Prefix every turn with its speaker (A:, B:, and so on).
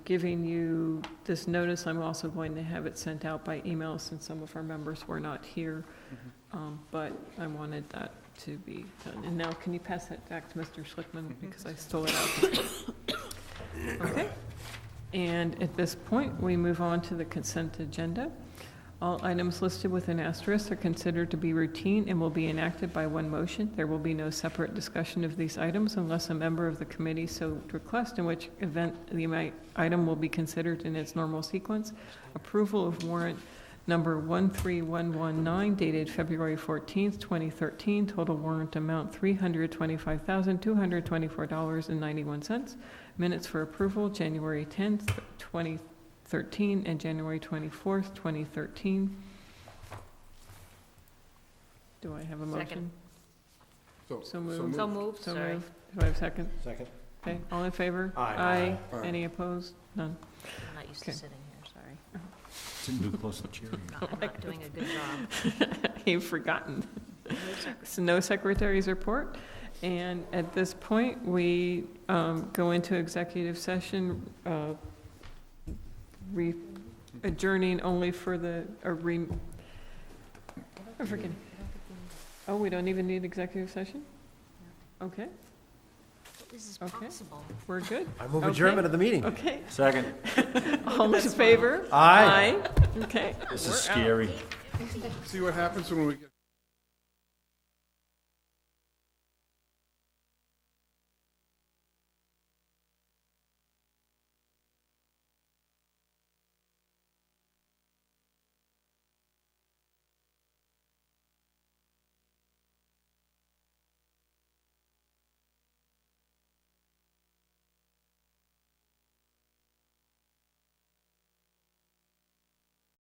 A: giving you this notice. I'm also going to have it sent out by email since some of our members were not here. Um, But I wanted that to be done. And now, can you pass that back to Mr. Schlickman because I stole it out? Okay. And at this point, we move on to the consent agenda. All items listed with an asterisk are considered to be routine and will be enacted by one motion. There will be no separate discussion of these items unless a member of the committee so requests, in which event the mi- item will be considered in its normal sequence. Approval of warrant number 13119 dated February 14th, 2013, total warrant amount $325,224.91. Minutes for approval, January 10th, 2013, and January 24th, 2013. Do I have a motion?
B: Second.
A: So moved.
B: So moved,
A: So
B: sorry.
A: moved. Do I have a second?
C: Second.
A: Okay, all in favor?
C: Aye.
A: Aye. Any opposed? None.
B: I'm not used to
A: Okay. Oh
B: sitting here, sorry.
D: Didn't do close to cheering.
B: No, I'm not doing a good job.
A: You've forgotten. So no secretary's report. And at this point, we um, go into executive session, uh, re- adjourning only for the, or re, I'm forgetting. Oh, we don't even need executive session? Okay,
B: This is
A: Okay.
B: possible.
A: we're good.
C: I move
A: Okay.
C: adjournment of the meeting.
A: Okay,
D: Second.
A: all in
B: That's fine.
A: favor?
C: Aye.
A: Okay.
D: This
A: We're
D: is
A: out.
D: scary.
E: See what happens when we get.